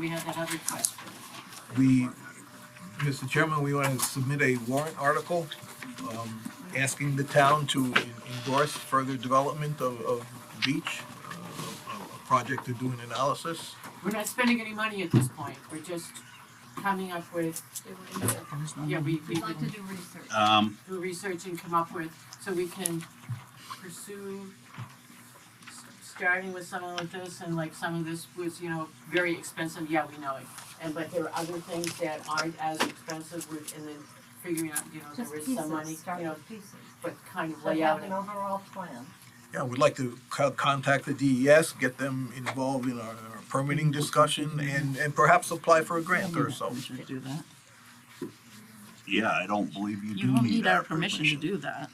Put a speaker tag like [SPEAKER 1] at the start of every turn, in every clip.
[SPEAKER 1] We had that other question.
[SPEAKER 2] We, Mr. Chairman, we want to submit a warrant article um, asking the town to en- endorse further development of, of the beach, uh, a- a project to do an analysis.
[SPEAKER 1] We're not spending any money at this point, we're just coming up with, yeah, we, we
[SPEAKER 3] We'd like to do research.
[SPEAKER 4] Um,
[SPEAKER 1] do research and come up with, so we can pursue s- starting with something like this, and like some of this was, you know, very expensive, yeah, we know it. And but there are other things that aren't as expensive, with- and then figuring out, you know,
[SPEAKER 3] Just
[SPEAKER 1] there is some money,
[SPEAKER 3] pieces, start
[SPEAKER 1] you know,
[SPEAKER 3] with pieces.
[SPEAKER 1] but kind of
[SPEAKER 3] So
[SPEAKER 1] lay out
[SPEAKER 3] have
[SPEAKER 1] it.
[SPEAKER 3] an overall plan.
[SPEAKER 2] Yeah, we'd like to co- contact the DES, get them involved in our our permitting discussion and, and perhaps apply for a grant or so.
[SPEAKER 5] We should do that.
[SPEAKER 4] yeah, I don't believe you do
[SPEAKER 5] You don't
[SPEAKER 4] need our
[SPEAKER 5] permission to
[SPEAKER 4] permission.
[SPEAKER 5] do that.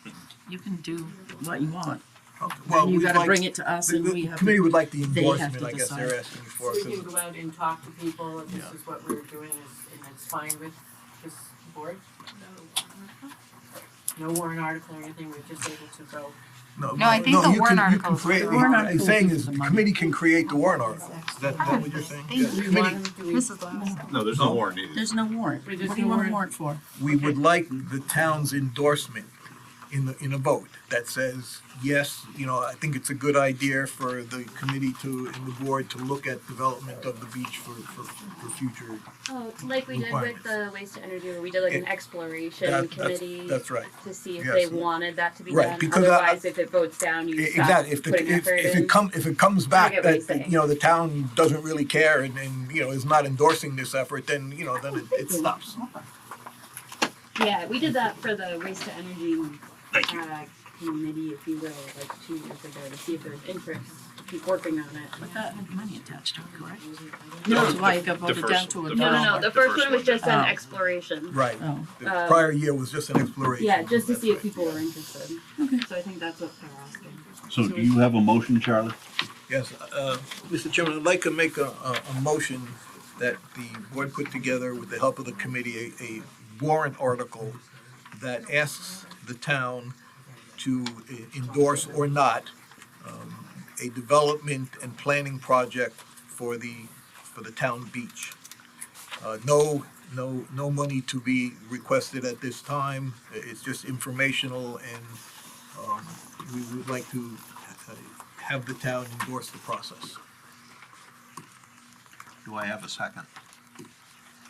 [SPEAKER 5] You can do what you want.
[SPEAKER 2] Okay, well,
[SPEAKER 5] Then you
[SPEAKER 2] we'd
[SPEAKER 5] gotta
[SPEAKER 2] like-
[SPEAKER 5] bring it to us
[SPEAKER 2] the-
[SPEAKER 5] and
[SPEAKER 2] the
[SPEAKER 5] we have.
[SPEAKER 2] Committee would like the
[SPEAKER 5] they have
[SPEAKER 2] endorsement,
[SPEAKER 5] to
[SPEAKER 2] I guess they're
[SPEAKER 5] decide.
[SPEAKER 2] asking for.
[SPEAKER 1] So we can
[SPEAKER 2] 'cause-
[SPEAKER 1] go out and talk to people, and this
[SPEAKER 2] Yeah.
[SPEAKER 1] is what we're doing, is- and it's fine with this board? No warrant article or anything, we're just able to go.
[SPEAKER 6] No, I think the
[SPEAKER 2] you can-
[SPEAKER 6] warrant
[SPEAKER 2] you can
[SPEAKER 6] articles
[SPEAKER 2] create-
[SPEAKER 6] are-
[SPEAKER 2] the-
[SPEAKER 5] Warrant
[SPEAKER 2] I'm
[SPEAKER 5] articles
[SPEAKER 2] saying
[SPEAKER 5] is
[SPEAKER 2] is,
[SPEAKER 5] the
[SPEAKER 2] the
[SPEAKER 5] money.
[SPEAKER 2] committee can create the warrant article. Is that that what you're saying?
[SPEAKER 6] Thank
[SPEAKER 2] Yes.
[SPEAKER 1] Do we
[SPEAKER 2] Committee-
[SPEAKER 1] want them, do we,
[SPEAKER 6] Mrs. Glasgow.
[SPEAKER 7] No, there's no warrant needed.
[SPEAKER 5] There's no warrant.
[SPEAKER 1] Wait, there's
[SPEAKER 5] What do you
[SPEAKER 1] no
[SPEAKER 5] want a warrant
[SPEAKER 1] warrant?
[SPEAKER 5] for?
[SPEAKER 2] We would like the town's endorsement in the, in a vote that says, yes, you know, I think it's a good idea for the committee to, and the board to look at development of the beach for, for, for future.
[SPEAKER 8] Oh, like we did with the waste to energy, where we did like an
[SPEAKER 2] It-
[SPEAKER 8] exploration
[SPEAKER 2] that- that's-
[SPEAKER 8] committee
[SPEAKER 2] that's right.
[SPEAKER 8] to see if
[SPEAKER 2] Yes.
[SPEAKER 8] they wanted that to be
[SPEAKER 2] Right,
[SPEAKER 8] done.
[SPEAKER 2] because I-
[SPEAKER 8] Otherwise, if it votes down, you
[SPEAKER 2] E-
[SPEAKER 8] stop
[SPEAKER 2] Exactly, if,
[SPEAKER 8] putting
[SPEAKER 2] the- if,
[SPEAKER 8] effort
[SPEAKER 2] if
[SPEAKER 8] in.
[SPEAKER 2] it come, if it comes back
[SPEAKER 8] get what he's
[SPEAKER 2] that,
[SPEAKER 8] saying.
[SPEAKER 2] you know, the town doesn't really care and, and, you know, is not endorsing this effort, then, you know, then it, it stops.
[SPEAKER 8] yeah, we did that for the waste to energy
[SPEAKER 4] Thank you.
[SPEAKER 8] uh, committee, if you will, like two years ago, to see if there's interest. to Keep working on it.
[SPEAKER 5] But that had money attached to it, correct? That's why it got
[SPEAKER 7] The
[SPEAKER 5] voted
[SPEAKER 7] first-
[SPEAKER 5] down to a
[SPEAKER 7] the
[SPEAKER 8] No,
[SPEAKER 5] no.
[SPEAKER 8] no, no. The
[SPEAKER 7] The
[SPEAKER 8] first
[SPEAKER 7] first
[SPEAKER 8] one was
[SPEAKER 7] one.
[SPEAKER 8] just
[SPEAKER 5] Oh.
[SPEAKER 8] an exploration.
[SPEAKER 2] Right,
[SPEAKER 5] Oh,
[SPEAKER 2] the
[SPEAKER 8] Um,
[SPEAKER 2] prior year was just an exploration.
[SPEAKER 8] Yeah, just to see if
[SPEAKER 2] That's right.
[SPEAKER 8] people were interested. So I think that's what they're asking.
[SPEAKER 4] So do you have a motion, Charlie?
[SPEAKER 2] Yes, uh, Mr. Chairman, I'd like to make a, a, a motion that the board put together with the help of the committee, a, a warrant article that asks the town to e- endorse or not, um, a development and planning project for the, for the town beach. Uh, no, no, no money to be requested at this time, I- it's just informational and, um, we would like to uh, have the town endorse the process.
[SPEAKER 4] Do I have a second?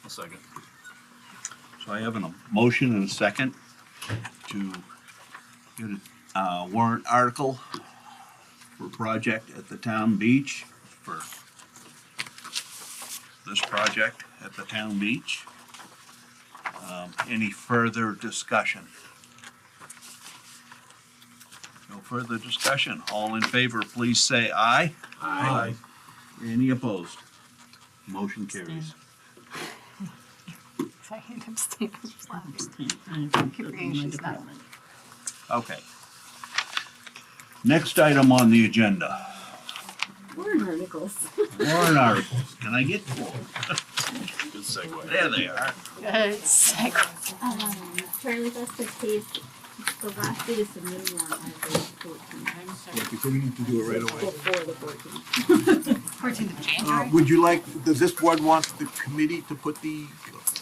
[SPEAKER 7] A second.
[SPEAKER 4] So I have a motion and a second to get a uh, warrant article for project at the town beach for this project at the town beach. Um, any further discussion? No further discussion. All in favor, please say aye. Aye. Any opposed? Motion carries.
[SPEAKER 6] I hate him standing just laughing. she's not.
[SPEAKER 4] Okay. Next item on the agenda,
[SPEAKER 8] Warren articles.
[SPEAKER 4] warrant articles. Can I get to them?
[SPEAKER 7] Good segue.
[SPEAKER 4] There they are.
[SPEAKER 6] Good segue.
[SPEAKER 8] Um, Charlie, that's the case. The last day to submit one is fourteen.
[SPEAKER 1] I'm sorry.
[SPEAKER 2] we need to do it right
[SPEAKER 8] Before the fourteen.
[SPEAKER 6] Fourteenth of
[SPEAKER 2] Uh,
[SPEAKER 6] January.
[SPEAKER 2] would you like, does this board want the committee to put the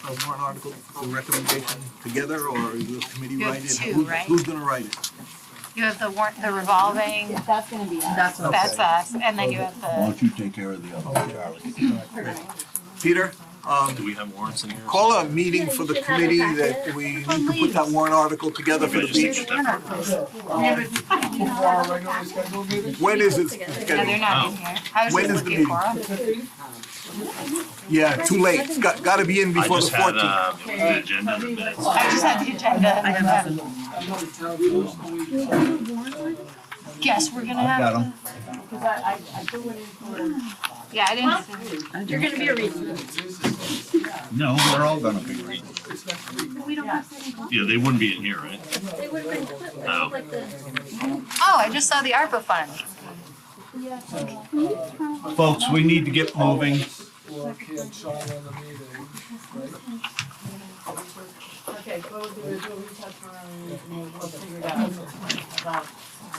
[SPEAKER 2] uh, warrant article the recommendation together, or will the committee
[SPEAKER 6] You have
[SPEAKER 2] write it?
[SPEAKER 6] two,
[SPEAKER 2] Who's-
[SPEAKER 6] right?
[SPEAKER 2] Who's gonna write it?
[SPEAKER 6] You have the warrant, the revolving,
[SPEAKER 8] That's gonna be us.
[SPEAKER 5] that's what.
[SPEAKER 6] that's us, and then you have
[SPEAKER 4] Why
[SPEAKER 6] the,
[SPEAKER 4] don't you take care of the other one, Charlie?
[SPEAKER 2] Peter, um,
[SPEAKER 7] Do we have warrants in here?
[SPEAKER 2] call a meeting
[SPEAKER 8] Yeah,
[SPEAKER 2] for
[SPEAKER 8] you
[SPEAKER 2] the
[SPEAKER 8] should have a
[SPEAKER 2] committee
[SPEAKER 8] packet.
[SPEAKER 2] that we need to put that warrant article together for the
[SPEAKER 7] Everybody
[SPEAKER 2] beach.
[SPEAKER 7] just-
[SPEAKER 2] When is it
[SPEAKER 6] no, they're
[SPEAKER 2] scheduled?
[SPEAKER 6] not in here. I was
[SPEAKER 2] When is
[SPEAKER 6] just
[SPEAKER 2] the
[SPEAKER 6] looking for
[SPEAKER 2] meeting?
[SPEAKER 6] them.
[SPEAKER 2] Yeah, too late, it's got, gotta be in
[SPEAKER 7] I
[SPEAKER 2] before the
[SPEAKER 7] just had,
[SPEAKER 2] fourteenth.
[SPEAKER 7] uh, an agenda in the minutes.
[SPEAKER 6] I just had the agenda.
[SPEAKER 5] I have nothing.
[SPEAKER 6] Yes, we're gonna
[SPEAKER 4] I've
[SPEAKER 6] have.
[SPEAKER 4] got them.
[SPEAKER 6] Yeah, I didn't.
[SPEAKER 5] I
[SPEAKER 8] You're
[SPEAKER 5] don't.
[SPEAKER 8] gonna be a reason.
[SPEAKER 4] No, we're all gonna be reading.
[SPEAKER 8] We don't have second copies.
[SPEAKER 7] Yeah, they wouldn't be in here, right?
[SPEAKER 8] They would've been put
[SPEAKER 7] Oh.
[SPEAKER 8] like the.
[SPEAKER 6] Oh, I just saw the ARPA fund.
[SPEAKER 4] Oh. Folks, we need to get moving.
[SPEAKER 1] Okay, so we'll do is we'll reach out to Ryan and we'll figure it out about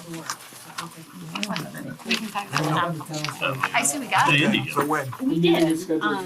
[SPEAKER 1] the work. Okay.
[SPEAKER 6] We can talk about that. I see we got it.
[SPEAKER 7] Hey, Andy,
[SPEAKER 2] So when?
[SPEAKER 8] We did, um.